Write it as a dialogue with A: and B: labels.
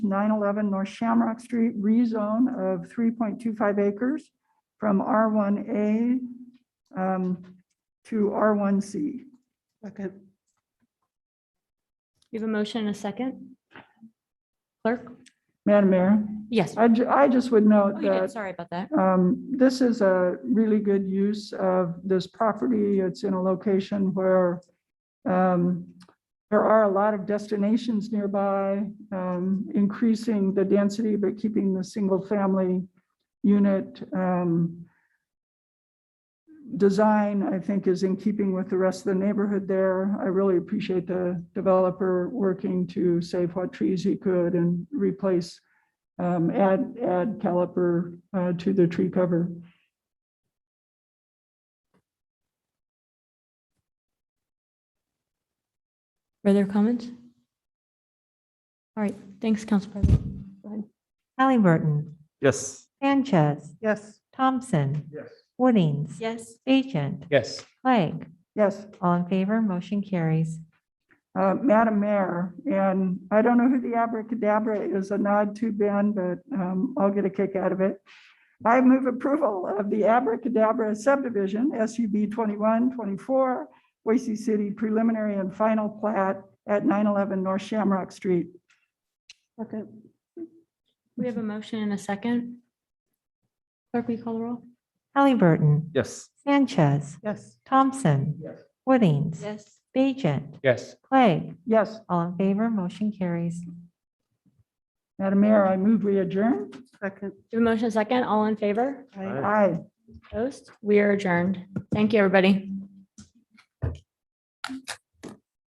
A: nine eleven North Shamrock Street rezone of three point two five acres from R one A um, to R one C.
B: Second.
C: You have a motion and a second? Clerk?
A: Madam Mayor,
C: Yes.
A: I, ju- I just would
C: Oh,
A: note
C: you did.
A: that
C: Sorry about that.
A: Um, This is a really good use of this property. It's in a location where um, there are a lot of destinations nearby, um, increasing the density, but keeping the single-family unit um, design, I think, is in keeping with the rest of the neighborhood there. I really appreciate the developer working to save what trees he could and replace um, add, add caliper, uh, to the tree cover.
C: Further comments? All right, thanks, Council President. Go ahead.
D: Halliburton,
E: Yes.
D: Sanchez,
B: Yes.
D: Thompson,
E: Yes.
D: Woodings.
C: Yes.
D: Agent,
E: Yes.
D: Clegg.
A: Yes,
D: All in favor, motion carries.
A: uh, Madam Mayor, and I don't know who the abracadabra is a nod to Ben, but, um, I'll get a kick out of it. I move approval of the abracadabra subdivision, SUB twenty-one, twenty-four, Boise City preliminary and final plat at nine eleven North Shamrock Street.
B: Second.
C: We have a motion and a second. Clerk, will you call the roll?
D: Halliburton,
E: Yes.
D: Sanchez,
B: Yes.
D: Thompson,
E: Yes.
D: Woodings.
C: Yes.
D: Agent,
E: Yes.
D: Clegg.
A: Yes,
D: All in favor, motion carries.
A: Madam Mayor, I move we adjourn.
B: Second.
C: You have a motion and a second? All in favor?
B: Aye.
A: Aye.
C: Opposed? We are adjourned. Thank you, everybody.